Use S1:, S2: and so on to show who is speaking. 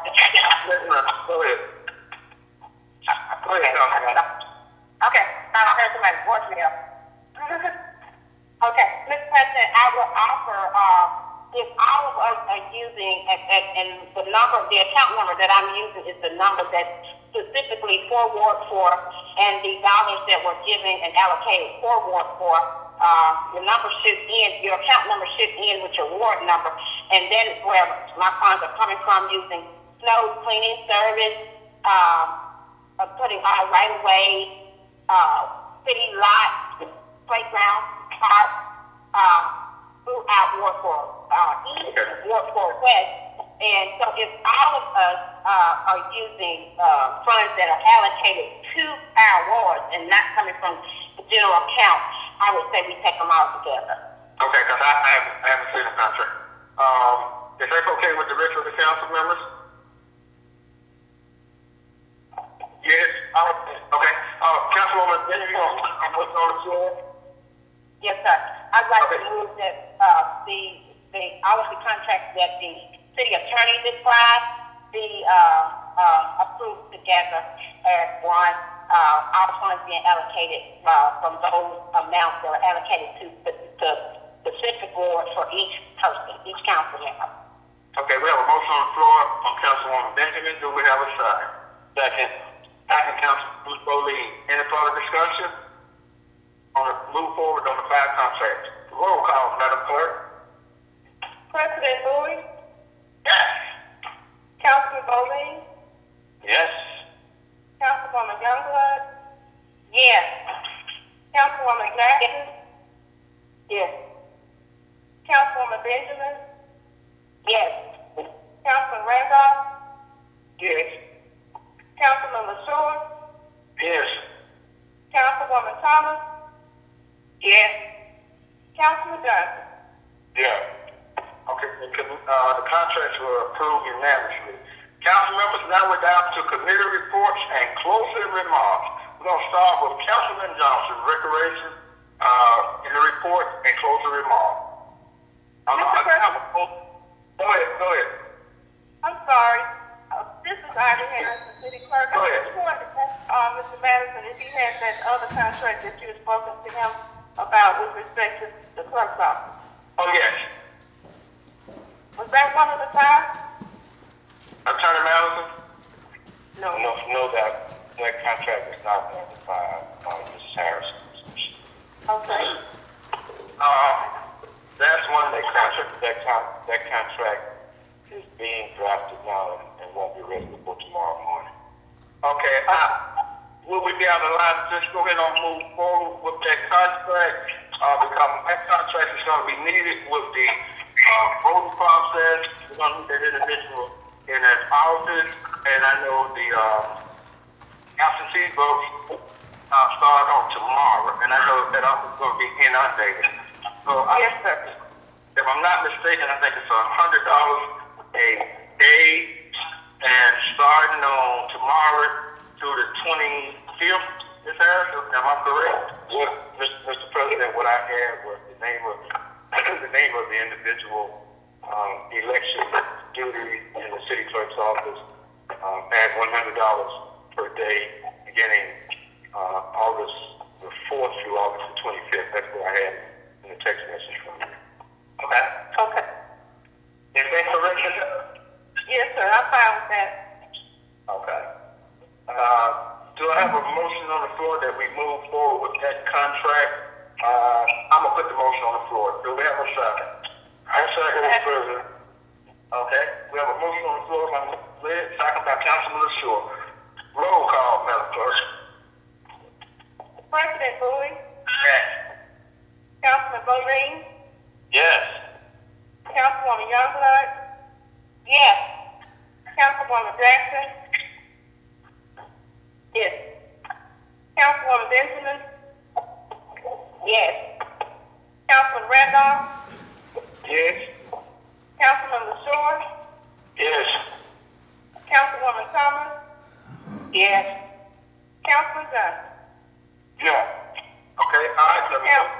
S1: uh, the account number that I'm using is the number that's specifically for Ward Four, and the dollars that were given and allocated for Ward Four, uh, the number should end, your account number should end with your ward number, and then where my funds are coming from using snow cleaning service, uh, uh, putting on right of way, uh, city lot, playground, park, uh, throughout Ward Four, uh, east of Ward Four West, and so if all of us uh, are using uh, funds that are allocated to our wards and not coming from the general account, I would say we take them all together.
S2: Okay, because I, I haven't, I haven't seen the contract. Um, is that okay with the rest of the council members? Yes, I would- okay, uh, Councilwoman, then you want, I'm putting on the floor.
S1: Yes, sir. I'd like to
S2: Okay.
S1: move that uh, the the all of the contracts that the city attorney described be uh, uh, approved together as one. Uh, all funds being allocated uh, from those amounts that are allocated to the, the specific board for each person, each council member.
S2: Okay, we have a motion on the floor from Councilwoman Benjamin, do we have a second? Second. Second, Councilwoman Bowleen, any further discussion? On the, move forward on the five contracts, roll call, Madam Clerk.
S3: President Bowie,
S2: Yes.
S3: Councilman Bowling,
S2: Yes.
S3: Councilwoman Youngblood,
S1: Yes.
S3: Councilwoman Jackson,
S1: Yes.
S3: Councilwoman Benjamin,
S1: Yes.
S3: Councilman Randolph,
S2: Yes.
S3: Councilman LaShaw,
S2: Yes.
S3: Councilwoman Thomas,
S1: Yes.
S3: Councilman Johnson.
S2: Yeah. Okay, the com- uh, the contracts were approved unanimously. Council members, now we're down to committee reports and closing remarks. We're gonna start with Councilman Johnson, Recreation, uh, in the report and closing remarks. I'm,
S3: Mr.
S2: I'm, I'm,
S3: President.
S2: go ahead, go ahead.
S3: I'm sorry, Uh, this is Ivy Harrison, City Clerk.
S2: Go
S3: I
S2: ahead.
S3: just wanted to ask, uh, Mr. Madison, if he has that other contract that you had spoken to him about with respect to the clerk's office.
S2: Oh, yes.
S3: Was that one of the five?
S2: Attorney Madison?
S4: No, no, that, that contract was not notified by Mrs. Harrison.
S3: Okay.
S2: Uh, that's one
S4: That
S2: that
S4: contract, that con, that contract is being drafted now and- and won't be ready before tomorrow morning.
S2: Okay, uh, will we be on the line, just go ahead and move forward with that contract, uh, because that contract is gonna be needed with the, uh, voting process, we're gonna need that individual in his office, and I know the, uh, absentee votes, uh, start on tomorrow, and I know that office is gonna be inundated. So I,
S3: Yes, sir.
S2: if I'm not mistaken, I think it's a hundred dollars a day, and starting on tomorrow through the twenty fifth. Is that am I correct?
S4: What, Mr. Mr. President, what I had was the name of, the name of the individual, um, election duty in the city clerk's office, um, at one hundred dollars per day, beginning, uh, August the fourth through August the twenty-fifth. That's what I had in the text message from you.
S2: Okay.
S3: Okay.
S2: Is that correct? Lisa?
S3: Yes, sir, I'm fine with that.
S2: Okay. Uh, do I have a motion on the floor that we move forward with that contract? Uh, I'm gonna put the motion on the floor. Do we have a second? I second
S3: Mr.
S2: President. Okay, we have a motion on the floor by Mr. Lynn, second by Councilman LaShaw. Roll call, Madam Clerk.
S3: President Bowie,
S2: Yes.
S3: Councilman Bowling,
S2: Yes.
S3: Councilwoman Youngblood,
S1: Yes.
S3: Councilwoman Jackson,
S1: Yes.
S3: Councilwoman Benjamin,
S1: Yes.
S3: Councilman Randolph,
S2: Yes.
S3: Councilman LaShaw,
S2: Yes.
S3: Councilwoman Thomas,
S1: Yes.
S3: Councilman Johnson.
S2: Yeah. Okay, all right, let me.
S3: Council,